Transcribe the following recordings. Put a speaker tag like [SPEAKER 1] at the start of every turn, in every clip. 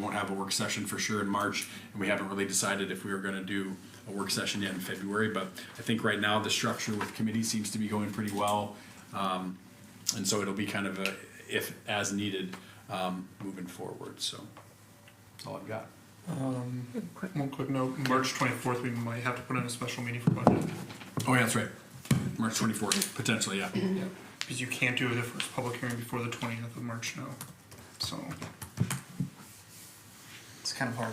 [SPEAKER 1] We won't have a work session for sure in March, and we haven't really decided if we were gonna do a work session yet in February, but I think right now the structure with committee seems to be going pretty well. Um, and so it'll be kind of a, if as needed, um, moving forward, so that's all I've got.
[SPEAKER 2] One quick note, March twenty-fourth, we might have to put in a special meeting for budget,
[SPEAKER 1] Oh, yeah, that's right. March twenty-fourth, potentially, yeah.
[SPEAKER 2] because you can't do the first public hearing before the twentieth of March now, so.
[SPEAKER 3] It's kind of hard.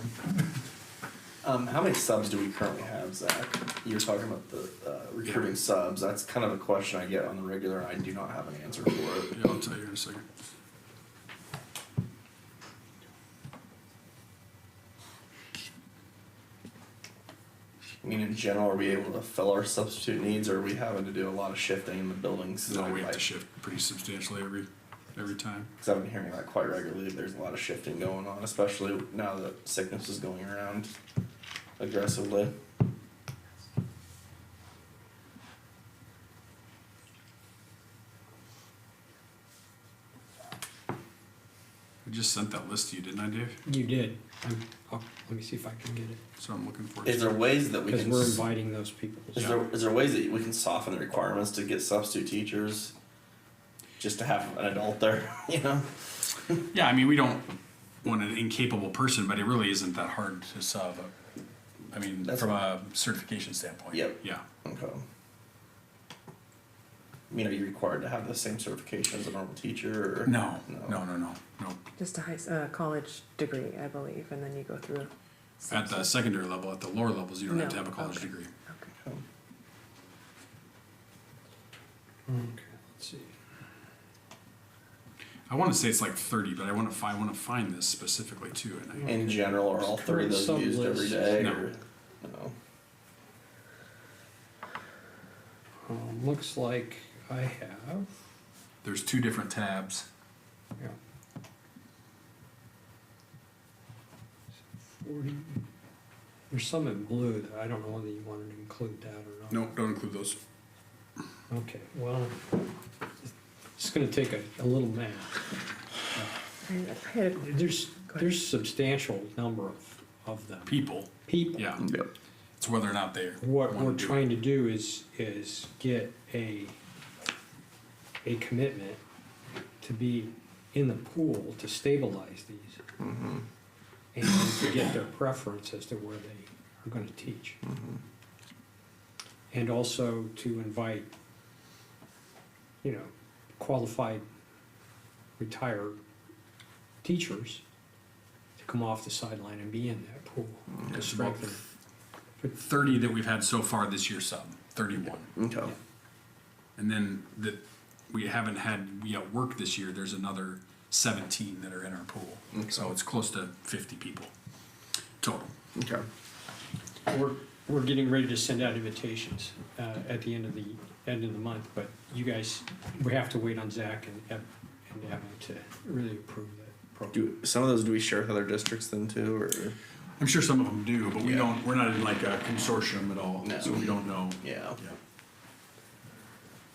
[SPEAKER 4] Um, how many subs do we currently have, Zach? You were talking about the uh, recruiting subs. That's kind of a question I get on the regular. and I do not have an answer for it.
[SPEAKER 1] Yeah, I'll tell you in a second.
[SPEAKER 4] I mean, in general, are we able to fill our substitute needs, or are we having to do a lot of shifting in the buildings?
[SPEAKER 1] No, we have
[SPEAKER 4] Like,
[SPEAKER 1] to shift pretty substantially every, every time.
[SPEAKER 4] 'cause I've been hearing that quite regularly. There's a lot of shifting going on, especially now that sickness is going around aggressively.
[SPEAKER 1] I just sent that list to you, didn't I, Dave?
[SPEAKER 5] You did. I'm, I'll, let me see if I can get it,
[SPEAKER 1] So I'm looking forward to.
[SPEAKER 4] Is there ways that we
[SPEAKER 5] because
[SPEAKER 4] can?
[SPEAKER 5] we're
[SPEAKER 4] s-
[SPEAKER 5] inviting those people.
[SPEAKER 4] Is there is there ways that we can soften the requirements to get substitute teachers, just to have an adult there? You know.
[SPEAKER 1] Yeah, I mean, we don't want an incapable person, but it really isn't that hard to sub. I mean,
[SPEAKER 4] That's-
[SPEAKER 1] from a certification standpoint.
[SPEAKER 4] Yep.
[SPEAKER 1] Yeah.
[SPEAKER 4] Okay. I mean, are you required to have the same certification as a normal teacher? Or?
[SPEAKER 1] No, no, no, no, no.
[SPEAKER 6] Just a high, s- uh, college degree, I believe, and then you go through.
[SPEAKER 1] At the secondary level, at the lower levels, you don't have to
[SPEAKER 6] No,
[SPEAKER 1] have a college
[SPEAKER 6] okay.
[SPEAKER 1] degree.
[SPEAKER 6] Okay.
[SPEAKER 4] Okay.
[SPEAKER 5] Okay, let's see.
[SPEAKER 1] I want to say it's like thirty, but I want to find, want to find this specifically too. And I,
[SPEAKER 4] In general, are all three of those
[SPEAKER 5] Current
[SPEAKER 4] used every
[SPEAKER 5] sublist.
[SPEAKER 4] day?
[SPEAKER 1] No.
[SPEAKER 4] Or, no.
[SPEAKER 5] Um, looks like I have,
[SPEAKER 1] there's two different tabs.
[SPEAKER 5] yeah. Forty, there's some in blue that I don't know whether you wanted to include that or not.
[SPEAKER 1] No, don't include those.
[SPEAKER 5] Okay, well, it's gonna take a, a little math.
[SPEAKER 6] I I had a-
[SPEAKER 5] There's,
[SPEAKER 6] ahead.
[SPEAKER 5] there's substantial number of, of them.
[SPEAKER 1] People.
[SPEAKER 5] People.
[SPEAKER 1] Yeah.
[SPEAKER 4] Yep.
[SPEAKER 1] It's whether or not they.
[SPEAKER 5] What
[SPEAKER 1] wanna
[SPEAKER 5] we're
[SPEAKER 1] do it.
[SPEAKER 5] trying to do is, is get a, a commitment to be in the pool to stabilize these.
[SPEAKER 1] Mm-hmm.
[SPEAKER 5] And to get their preference as to where they are gonna teach.
[SPEAKER 1] Mm-hmm.
[SPEAKER 5] And also to invite, you know, qualified retired teachers to come off the sideline and be in that pool. to
[SPEAKER 1] It's about
[SPEAKER 5] strengthen.
[SPEAKER 1] Thirty that we've had so far this year sub, thirty-one.
[SPEAKER 4] Okay.
[SPEAKER 1] And then that we haven't had yet work this year, there's another seventeen that are in our pool. So it's close to fifty people total.
[SPEAKER 4] Okay.
[SPEAKER 5] We're, we're getting ready to send out invitations uh, at the end of the, end of the month, but you guys, we have to wait on Zach and Ev- and Evan to really approve that program.
[SPEAKER 4] Do some of those do we share with other districts then too, or?
[SPEAKER 1] I'm sure some of them do, but we
[SPEAKER 4] Yeah.
[SPEAKER 1] don't, we're not in like a consortium at all,
[SPEAKER 4] No.
[SPEAKER 1] so we don't know.
[SPEAKER 4] Yeah.
[SPEAKER 1] Yeah.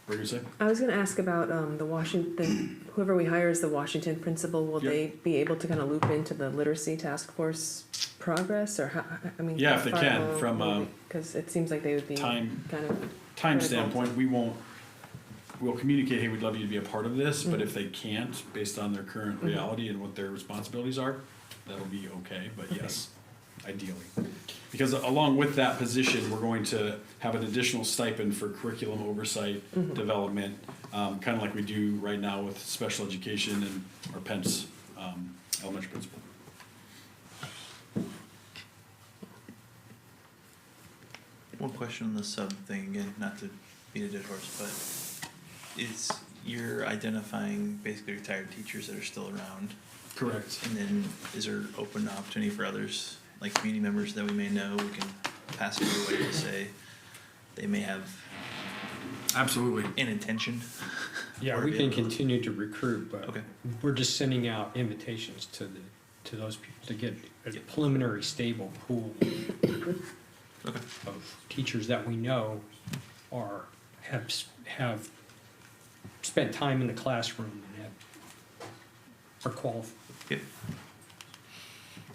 [SPEAKER 1] What are you saying?
[SPEAKER 6] I was gonna ask about, um, the Washington, whoever we hire as the Washington principal, will
[SPEAKER 1] Yeah.
[SPEAKER 6] they be able to kind of loop into the literacy task force progress, or how, I mean?
[SPEAKER 1] Yeah,
[SPEAKER 6] how
[SPEAKER 1] if they
[SPEAKER 6] far
[SPEAKER 1] can,
[SPEAKER 6] along
[SPEAKER 1] from,
[SPEAKER 6] will
[SPEAKER 1] um,
[SPEAKER 6] we- Cause it seems like they would be
[SPEAKER 1] time-
[SPEAKER 6] kind of,
[SPEAKER 1] Time
[SPEAKER 6] Critical.
[SPEAKER 1] standpoint, we won't, we'll communicate, hey, we'd love you to be a part of this, but if they can't, based on their current reality and what their responsibilities are, that'll be okay, but yes, ideally. Because along with that position, we're going to have an additional stipend for curriculum oversight, development, um, kind of like we do right now with special education and our Pence, um, elementary principal.
[SPEAKER 7] One question on the sub thing again, not to beat a dead horse, but it's you're identifying basically retired teachers that are still around,
[SPEAKER 1] Correct.
[SPEAKER 7] and then is there open opportunity for others, like community members that we may know, we can pass it away to say they may have
[SPEAKER 1] Absolutely.
[SPEAKER 7] an intention.
[SPEAKER 5] Yeah,
[SPEAKER 7] or
[SPEAKER 5] we
[SPEAKER 7] be
[SPEAKER 5] can
[SPEAKER 7] able to-
[SPEAKER 5] continue to recruit, but
[SPEAKER 7] Okay.
[SPEAKER 5] we're just sending out invitations to the, to those people to get a
[SPEAKER 7] Yep.
[SPEAKER 5] preliminary stable pool
[SPEAKER 7] Okay.
[SPEAKER 5] of teachers that we know are, have, s- have spent time in the classroom and have, are qualified.
[SPEAKER 7] Yep.